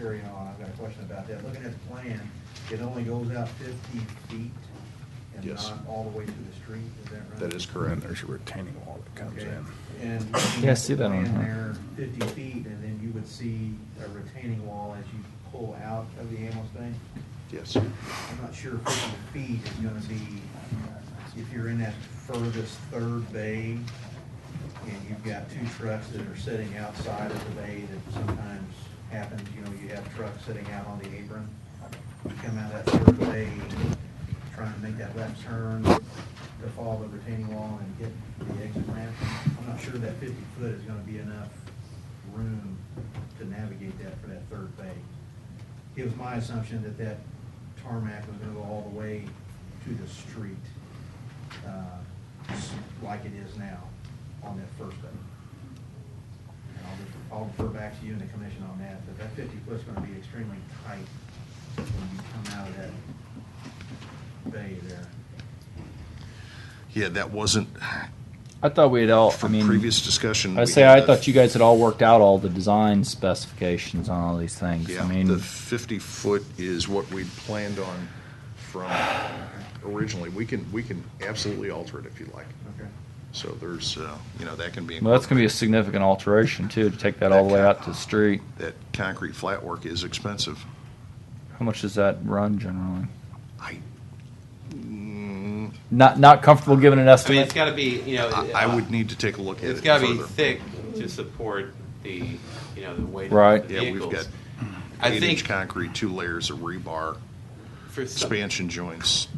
carry on, I've got a question about that. Looking at the plan, it only goes out fifty feet and Yes. not all the way to the street, is that right? That is correct. There's a retaining wall that comes Okay. in. And. Yeah, I see that on Plan her. there, fifty feet, and then you would see a retaining wall as you pull out of the ambulance thing. Yes. I'm not sure fifty feet is gonna be, if you're in that furthest third bay, and you've got two trucks that are sitting outside of the bay, that sometimes happens, you know, you have trucks sitting out on the apron, you come out of that third bay, trying to make that left turn to follow the retaining wall and get the exit ramp, I'm not sure that fifty foot is gonna be enough room to navigate that for that third bay it was my assumption that that tarmac was gonna go all the way to the street, uh, s- like it is now on that first bay. And I'll, just- I'll refer back to you and the commission on that, but that fifty foot's gonna be extremely tight when you come out of that bay there. Yeah, that wasn't, I thought we had all. I from mean, previous discussion. I we say had I the- thought you guys had all worked out all the design specifications on all these things. Yeah, I mean, the 50-foot is what we planned on from originally. We can, we can absolutely alter it if you like. Okay. So there's, uh, you know, that can be. well, that's going to be a significant alteration too to take that all the way out to the street. That concrete flat work is expensive. How much does that run generally? I, mm, Not not comfortable giving an I mean, estimate. it's got to be, you know, uh, I I would need to take a look at it. It's got to be further. thick to support the, you know, the weight Right. of the Yeah, we've vehicles. got I eight-inch think concrete, two layers of rebar, for some, expansion joints.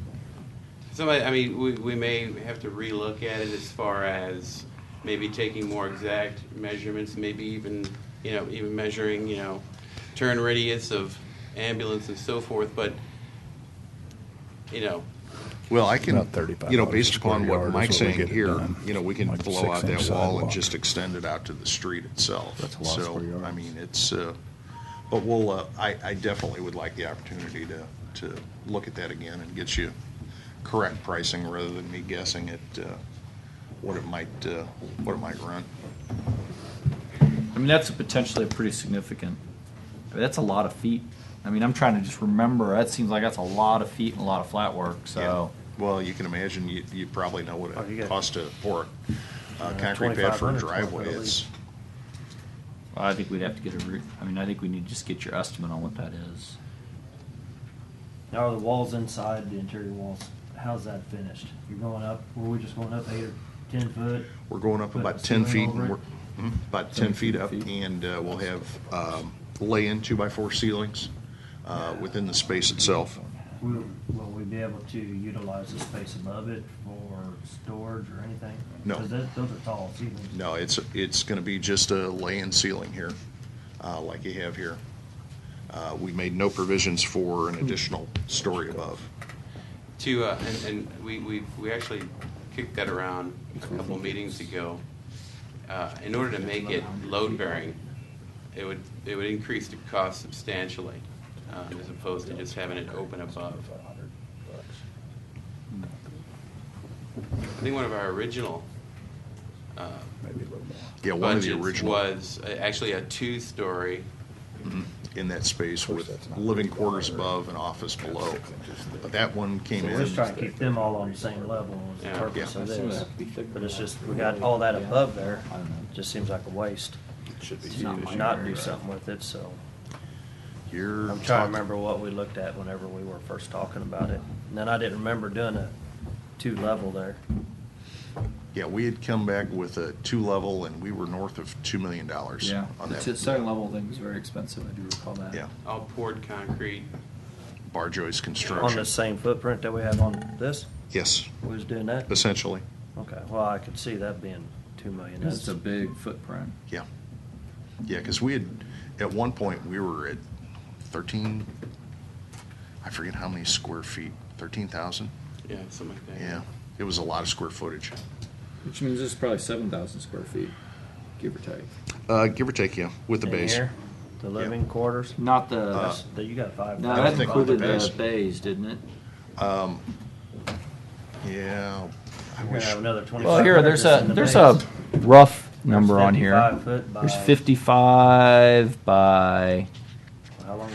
somebody, I mean, we, we may have to relook at it as far as maybe taking more exact measurements, maybe even, you know, even measuring, you know, turn radius of ambulance and so forth, but, you know, Well, I can, About 35 you know, dollars a based upon square yard what is Mike's what we saying get it here, done. you know, we can Like the blow out that six-inch wall and sidewalk. just extend it out to the street itself. That's a lot of square So, I yards. mean, it's, uh, but we'll, uh, I, I definitely would like the opportunity to, to look at that again and get you correct pricing rather than me guessing at uh, what it might, uh, what it might run. I mean, that's potentially a pretty significant. I mean, that's a lot of feet. I mean, I'm trying to just remember. That seems like that's a lot of feet and a lot of flat work. Oh. So Yeah. Well, you can imagine, you, you probably know what Oh, you it got- costs to pour a uh, concrete pad for a 2,500 driveway. square foot at It's, least. I think we'd have to get a. Re- I mean, I think we need to just get your estimate on what that is. Now the walls inside, the interior walls, how's that finished? You're going up, were we just going up eight or ten foot? We're going up Put about the ten ceiling feet, over and it? we're, hmm, about ten feet up, and uh, we'll have, um, lay-in two-by-four ceilings, uh, within the space itself. Will, will we be able to utilize the space above it for storage or anything? No. Because that, those are tall ceilings. No, it's, it's gonna be just a lay-in ceiling here, uh, like you have here. Uh, we made no provisions for Hmm. an additional story above. to, uh, and, and we, we, we actually kicked that around a couple meetings ago. Uh, in order to make it load bearing, it would, it would increase the cost substantially, um, as opposed to just having it open above. I think one of our original, uh, Yeah, one of the budgets original, was uh, actually a two-story, in that space course, with that's not- living quarters above and office below. But that one came So in. we're just trying to keep them all on the same level is the Yeah. purpose Yeah. of this. But it's just, we got all that above there, just seems like a waste Should to not not do something with it, so. You're. I'm trying to talking- remember what we looked at whenever we were first talking about it. And then I didn't remember doing a two-level there. Yeah, we had come back with a two-level, and we were north of $2 million Yeah, on the t- that second level thing was very expensive. I do recall that. Yeah. all poured concrete, bar joist uh, On construction. the same footprint that we have on this, Yes, we was doing that? essentially, Okay, well, I could see that being two million. It's That's, a big footprint. yeah. Yeah, because we had, at one point, we were at 13, I forget how many square feet, 13,000? yeah, something like that. Yeah, it was a lot of square footage. Which means it's probably seven thousand square feet, give or take. Uh, Give or take, yeah, with the In base. here, The living quarters, Not the. that's, that you got five. no, Uh, I don't that think included the bays. the bays, didn't it? Yeah. I You're gonna wish- have another twenty. Well, here there's a there's a rough number on here. 55 foot by- There's 55 by How long